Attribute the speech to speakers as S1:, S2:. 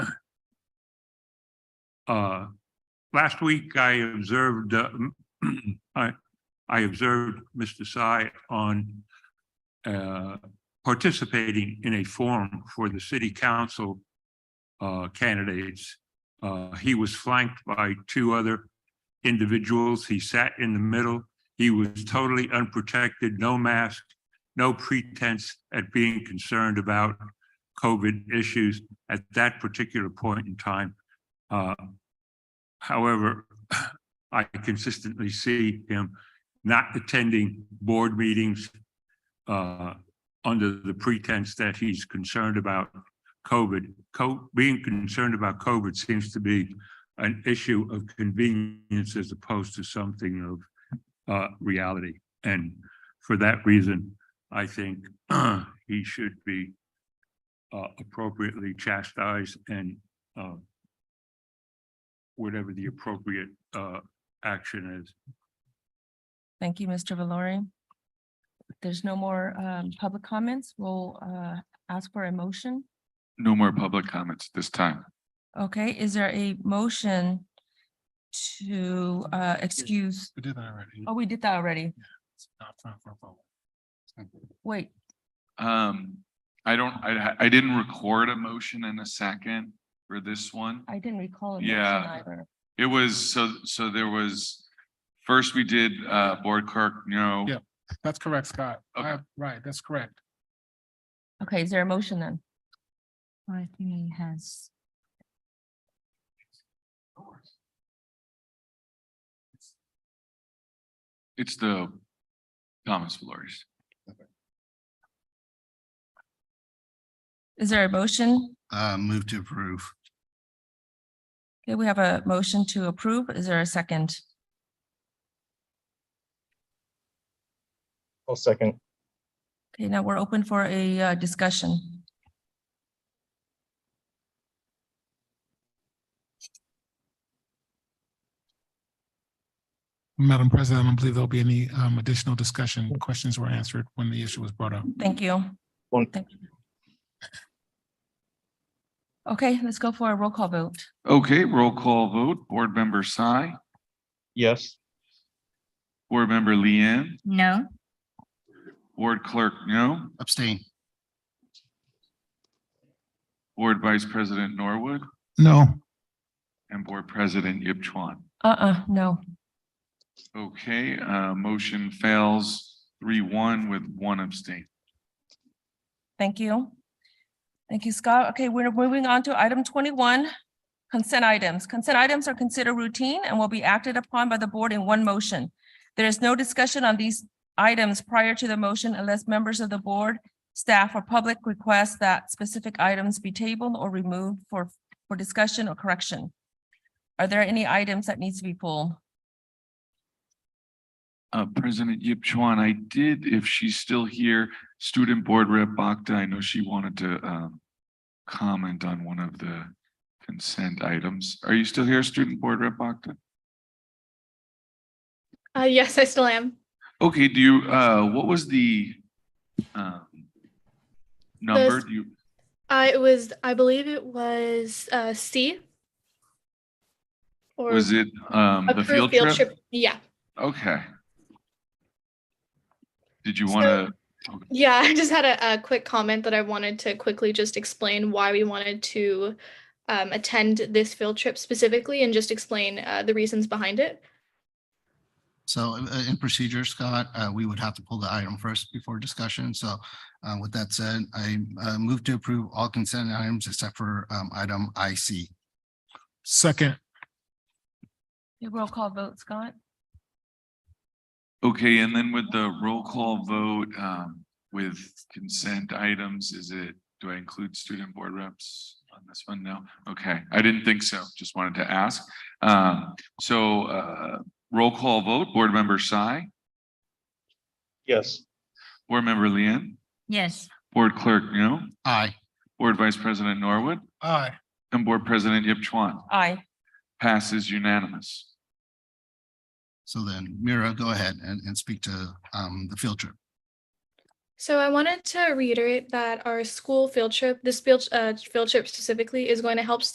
S1: Uh, last week I observed, uh, I, I observed Mr. Sy on uh, participating in a forum for the city council uh, candidates. Uh, he was flanked by two other individuals. He sat in the middle. He was totally unprotected, no mask, no pretense at being concerned about COVID issues at that particular point in time. Uh, However, I consistently see him not attending board meetings uh, under the pretense that he's concerned about COVID. Co- Being concerned about COVID seems to be an issue of convenience as opposed to something of uh, reality. And for that reason, I think he should be uh, appropriately chastised and uh, whatever the appropriate uh action is.
S2: Thank you, Mr. Valori. If There's no more um public comments. We'll uh ask for a motion.
S3: No more public comments this time.
S2: Okay, is there a motion to uh excuse?
S4: We did that already.
S2: Oh, we did that already.
S4: It's not time for a vote.
S2: Wait,
S3: Um, I don't, I, I didn't record a motion and a second for this one.
S2: I didn't recall. a motion
S3: Yeah.
S2: either.
S3: It was, so, so there was, first we did, uh, Board Clerk, no.
S4: Yeah. That's correct, Scott.
S3: Okay.
S4: I- Right, that's correct.
S2: Okay, is there a motion then?
S5: I think he has.
S3: It's the Thomas Valori's.
S2: Is there a motion?
S6: Uh, move to approve.
S2: Okay, we have a motion to approve. Is there a second?
S7: I'll second.
S2: Okay, now we're open for a uh discussion.
S4: Madam President, I don't believe there'll be any um, additional discussion. Questions were answered when the issue was brought up.
S2: Thank you.
S7: One-
S2: Thank you. Okay, let's go for a roll call vote.
S3: Okay, roll call vote, Board Member Si,
S7: Yes.
S3: Board Member Leanne,
S5: No,
S3: Board Clerk, no.
S6: Abstain.
S3: Board Vice President Norwood,
S4: No.
S3: and Board President Yip Chuan.
S2: Uh-uh, no.
S3: Okay, uh, motion fails three one with one abstain.
S2: Thank you. Thank you, Scott. Okay, we're moving on to item twenty-one, consent items. Consent items are considered routine and will be acted upon by the board in one motion. There is no discussion on these items prior to the motion unless members of the board, staff, or public request that specific items be tabled or removed for, for discussion or correction. Are there any items that needs to be pulled?
S3: Uh, President Yip Chuan, I did, if she's still here, Student Board Rep Bakta, I know she wanted to, um, comment on one of the consent items. Are you still here, Student Board Rep Bakta?
S8: Uh, yes, I still am.
S3: Okay, do you, uh, what was the, um, number? Do you,
S8: Uh, it was, I believe it was uh, C. Or
S3: was it, um, the
S8: approved
S3: field trip?
S8: Yeah,
S3: Okay. Did you
S8: So-
S3: want to?
S8: yeah. I just had a, a quick comment that I wanted to quickly just explain why we wanted to um, attend this field trip specifically, and just explain uh, the reasons behind it.
S6: So uh, in procedure, Scott, uh, we would have to pull the item first before discussion. So uh, with that said, I uh, move to approve all consent items except for um, item IC.
S4: Second,
S2: Roll call vote, Scott?
S3: Okay, and then with the roll call vote, um, with consent items, is it, do I include student board reps on this one? No, okay, I didn't think so, just wanted to ask. Um, so, uh, roll call vote, board member Si,
S7: Yes.
S3: board member Lian,
S5: yes,
S3: board clerk Ngo,
S6: Aye.
S3: board vice president Norwood,
S4: aye.
S3: and board president Yip Chuan.
S2: Aye.
S3: Passes unanimous.
S6: So then Mira, go ahead and, and speak to um, the field trip.
S8: So I wanted to reiterate that our school field trip, this field uh, field trip specifically, is going to help